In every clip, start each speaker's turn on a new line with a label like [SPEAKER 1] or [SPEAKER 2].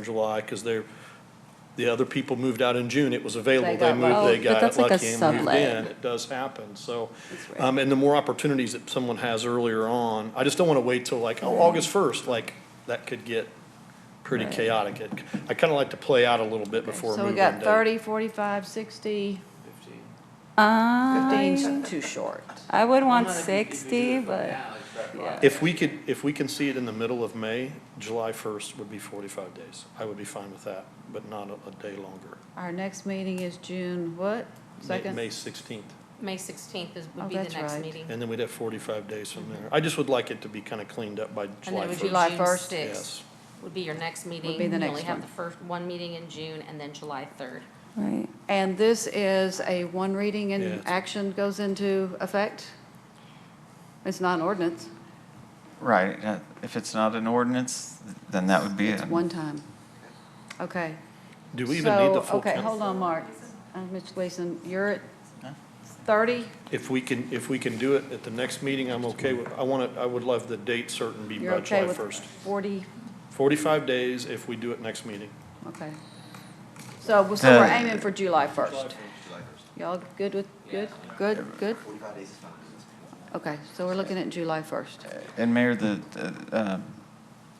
[SPEAKER 1] in July, because they're, the other people moved out in June, it was
[SPEAKER 2] They
[SPEAKER 1] available, they
[SPEAKER 2] got
[SPEAKER 1] moved,
[SPEAKER 2] lucky.
[SPEAKER 1] they
[SPEAKER 2] But
[SPEAKER 1] got it
[SPEAKER 3] that's like a
[SPEAKER 1] lucky and moved
[SPEAKER 3] sublet.
[SPEAKER 1] in. It does happen, so.
[SPEAKER 3] That's right.
[SPEAKER 1] Um, and the more opportunities that someone has earlier on, I just don't want to wait till like, oh, August first, like, that could get pretty
[SPEAKER 3] Right.
[SPEAKER 1] chaotic. It- I kind of like to play out a little bit before a
[SPEAKER 2] So we
[SPEAKER 1] move-in
[SPEAKER 2] got
[SPEAKER 1] date.
[SPEAKER 2] 30, 45, 60, Uh,
[SPEAKER 3] I,
[SPEAKER 2] 15 's too short.
[SPEAKER 3] I would want sixty, but yeah.
[SPEAKER 1] If we could, if we can see it in the middle of May, July first would be forty-five days. I would be fine with that, but not a, a day longer.
[SPEAKER 2] Our next meeting is June, what,
[SPEAKER 1] May-
[SPEAKER 2] second?
[SPEAKER 1] May sixteenth.
[SPEAKER 4] May 16th is,
[SPEAKER 2] Oh,
[SPEAKER 4] would be the
[SPEAKER 2] that's
[SPEAKER 4] next
[SPEAKER 2] right.
[SPEAKER 4] meeting.
[SPEAKER 1] And then we'd have forty-five days from there. I just would like it to be kind of cleaned up by
[SPEAKER 4] And
[SPEAKER 1] July
[SPEAKER 4] then it would be
[SPEAKER 1] first.
[SPEAKER 2] July
[SPEAKER 4] June
[SPEAKER 2] 1st.
[SPEAKER 4] 6th
[SPEAKER 1] Yes.
[SPEAKER 4] would be your next meeting.
[SPEAKER 2] the next
[SPEAKER 4] You only have
[SPEAKER 2] one.
[SPEAKER 4] the first, one meeting in June and then July 3rd.
[SPEAKER 3] Right.
[SPEAKER 2] And this is a one reading
[SPEAKER 1] Yeah,
[SPEAKER 2] and
[SPEAKER 1] it's-
[SPEAKER 2] action goes into effect? It's not an ordinance,
[SPEAKER 5] Right, uh, if it's not an ordinance, then that would be it.
[SPEAKER 2] it's one time. Okay.
[SPEAKER 1] Mm. Do we even need the
[SPEAKER 2] So,
[SPEAKER 1] full
[SPEAKER 2] okay,
[SPEAKER 1] council?
[SPEAKER 2] hold on, Mark. Uh, Mitch Gleason, you're at 30?
[SPEAKER 1] If we can, if we can do it at the next meeting, I'm okay with, I want to, I would love the date certain be
[SPEAKER 2] You're
[SPEAKER 1] by
[SPEAKER 2] okay
[SPEAKER 1] July
[SPEAKER 2] with
[SPEAKER 1] first.
[SPEAKER 2] 40?
[SPEAKER 1] Forty-five days if we do it next meeting.
[SPEAKER 2] Okay. So, so we're
[SPEAKER 5] The-
[SPEAKER 2] aiming for July 1st. Y'all good with, good, good, good? Okay, so we're looking at July 1st.
[SPEAKER 5] And Mayor, the, the, uh,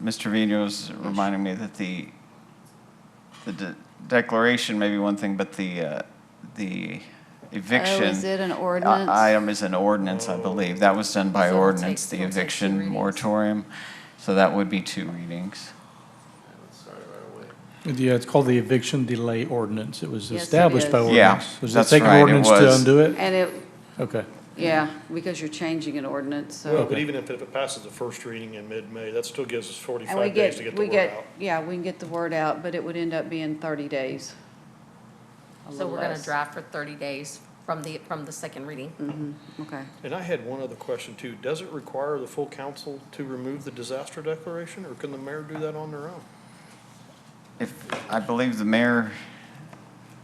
[SPEAKER 5] Mr. Vino's reminding me that the, the de- declaration may be one thing, but the, uh, the eviction.
[SPEAKER 2] Oh, it an
[SPEAKER 5] i-
[SPEAKER 2] ordinance?
[SPEAKER 5] Item is an ordinance, I believe. That was done by
[SPEAKER 4] So it'll
[SPEAKER 5] ordinance,
[SPEAKER 4] take-
[SPEAKER 5] the
[SPEAKER 4] it'll take two
[SPEAKER 5] eviction
[SPEAKER 4] readings.
[SPEAKER 5] moratorium. So that would be two readings.
[SPEAKER 6] Yeah, it's called the eviction delay ordinance. It was
[SPEAKER 2] Yes, it
[SPEAKER 6] established by
[SPEAKER 2] is.
[SPEAKER 6] ordinance.
[SPEAKER 5] Yeah,
[SPEAKER 6] Does that
[SPEAKER 5] that's
[SPEAKER 6] take an
[SPEAKER 5] right, it
[SPEAKER 6] ordinance to
[SPEAKER 5] was.
[SPEAKER 6] undo it?
[SPEAKER 2] And it,
[SPEAKER 6] Okay.
[SPEAKER 2] yeah, because you're changing an ordinance,
[SPEAKER 1] Well,
[SPEAKER 2] so.
[SPEAKER 1] but even if if it passes the first reading in mid-May, that still gives us
[SPEAKER 2] And we
[SPEAKER 1] forty-five days to get
[SPEAKER 2] get,
[SPEAKER 1] the
[SPEAKER 2] we
[SPEAKER 1] word
[SPEAKER 2] get,
[SPEAKER 1] out.
[SPEAKER 2] yeah, we can get the word out, but it would end up being 30 days. A
[SPEAKER 4] So
[SPEAKER 2] little
[SPEAKER 4] we're going to
[SPEAKER 2] less. Mm.
[SPEAKER 4] draft for 30 days from the, from the second reading.
[SPEAKER 2] Okay.
[SPEAKER 1] And I had one other question too. Does it require the full council to remove the disaster declaration, or can the mayor do that on their own?
[SPEAKER 5] If, I believe the mayor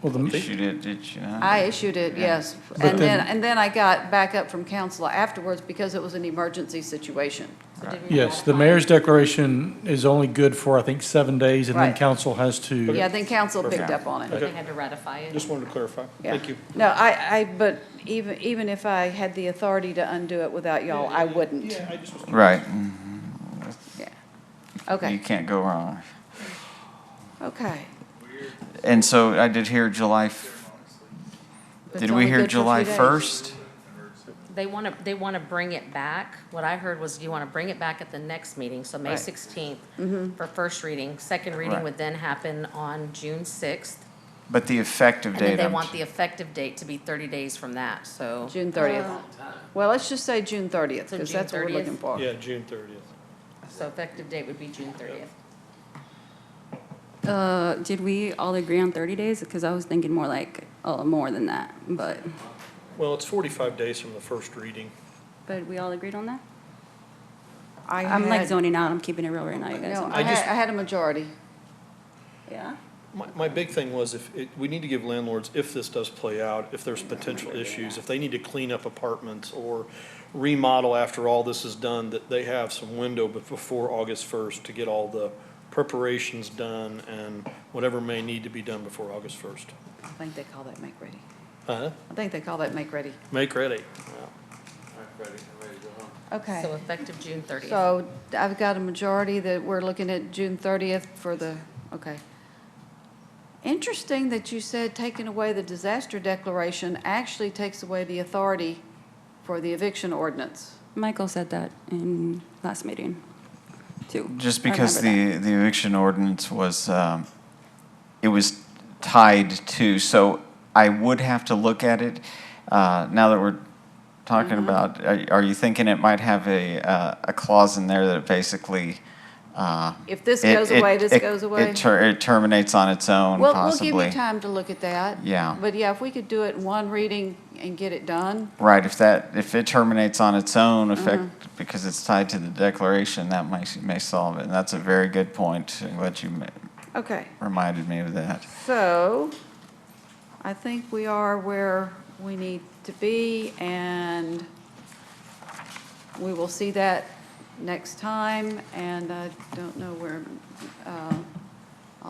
[SPEAKER 6] Well, the,
[SPEAKER 5] issued it, did you not?
[SPEAKER 2] I issued it, yes.
[SPEAKER 6] But
[SPEAKER 2] And then,
[SPEAKER 6] then-
[SPEAKER 2] and then I got backup from council afterwards because it was an emergency situation.
[SPEAKER 4] So did we
[SPEAKER 6] yes, the
[SPEAKER 4] modify-
[SPEAKER 6] mayor's declaration is only good for, I think, seven days, and then
[SPEAKER 2] Right.
[SPEAKER 6] council has to.
[SPEAKER 2] Yeah, then council picked
[SPEAKER 5] Perfect.
[SPEAKER 2] up on it.
[SPEAKER 4] They had to ratify it.
[SPEAKER 1] Just wanted to clarify.
[SPEAKER 2] Yeah.
[SPEAKER 1] Thank you.
[SPEAKER 2] No, I, I, but even, even if I had the authority to undo it without y'all, I wouldn't.
[SPEAKER 1] Yeah, I just was
[SPEAKER 5] Right,
[SPEAKER 2] Yeah.
[SPEAKER 5] you
[SPEAKER 2] Okay,
[SPEAKER 5] can't go wrong.
[SPEAKER 2] okay.
[SPEAKER 5] And so I did hear July, f-
[SPEAKER 2] But
[SPEAKER 5] did
[SPEAKER 2] it's
[SPEAKER 5] we
[SPEAKER 2] only
[SPEAKER 5] hear
[SPEAKER 2] good for
[SPEAKER 5] July
[SPEAKER 2] three days.
[SPEAKER 5] 1st?
[SPEAKER 4] They want to, they want to bring it back. What I heard was you want to bring it back at the next meeting, so May
[SPEAKER 2] Right. Mm-hmm.
[SPEAKER 4] 16th for first reading. Second reading
[SPEAKER 5] Right.
[SPEAKER 4] would then happen on June 6th.
[SPEAKER 5] But the effective
[SPEAKER 4] And then
[SPEAKER 5] date,
[SPEAKER 4] they
[SPEAKER 5] I'm-
[SPEAKER 4] want the effective date to be 30 days from that, so.
[SPEAKER 2] June thirtieth. Well, let's just say June thirtieth,
[SPEAKER 4] So
[SPEAKER 2] because
[SPEAKER 4] June
[SPEAKER 2] that's what we're
[SPEAKER 4] 30th?
[SPEAKER 2] looking for.
[SPEAKER 1] Yeah, June thirtieth.
[SPEAKER 4] So effective date would be June 30th.
[SPEAKER 3] Uh, did we all agree on thirty days? Because I was thinking more like, oh, more than that, but,
[SPEAKER 1] Well, it's forty-five days from the first reading.
[SPEAKER 3] but we all agreed on that?
[SPEAKER 2] I
[SPEAKER 3] I'm like
[SPEAKER 2] had-
[SPEAKER 3] zoning out. I'm keeping it real right now, you guys.
[SPEAKER 2] No,
[SPEAKER 3] I'm-
[SPEAKER 2] I
[SPEAKER 1] I just-
[SPEAKER 2] had, I had a majority.
[SPEAKER 3] Yeah?
[SPEAKER 1] My, my big thing was if, it- we need to give landlords, if this does play out, if there's potential issues, if they need to clean up apartments or remodel after all this is done, that they have some window bef- before August first to get all the preparations done and whatever may need to be done before August first.
[SPEAKER 2] I think they call that make ready.
[SPEAKER 1] Uh-huh,
[SPEAKER 2] I think they call that make ready.
[SPEAKER 1] make ready.
[SPEAKER 2] Okay.
[SPEAKER 4] So effective June 30th.
[SPEAKER 2] So I've got a majority that we're looking at June thirtieth for the, okay. Interesting that you said taking away the disaster declaration actually takes away the authority for the eviction ordinance.
[SPEAKER 3] Michael said that in last meeting, too.
[SPEAKER 5] just
[SPEAKER 3] I
[SPEAKER 5] because
[SPEAKER 3] remember that.
[SPEAKER 5] the, the eviction ordinance was, um, it was tied to, so I would have to look at it. Uh, now that we're
[SPEAKER 2] Mm-hmm.
[SPEAKER 5] talking about, are, are you thinking it might have a, uh, a clause in there that basically, uh,
[SPEAKER 2] If this
[SPEAKER 5] it-
[SPEAKER 2] goes
[SPEAKER 5] it-
[SPEAKER 2] away, this
[SPEAKER 5] it-
[SPEAKER 2] goes away?
[SPEAKER 5] It, ter- it terminates on its own
[SPEAKER 2] Well, we'll give you
[SPEAKER 5] Um, possibly.
[SPEAKER 2] time to look at that.
[SPEAKER 5] Yeah.
[SPEAKER 2] But yeah, if we could do it in one reading and get it done,
[SPEAKER 5] Right, if that, if it terminates on its own effect, because it's tied to the declaration, that might, may solve it. And that's a very good point. I'm glad you ma-
[SPEAKER 2] okay.
[SPEAKER 5] reminded me of that.
[SPEAKER 2] So I think we are where we need to be, and we will see that next time. And I don't know where, um,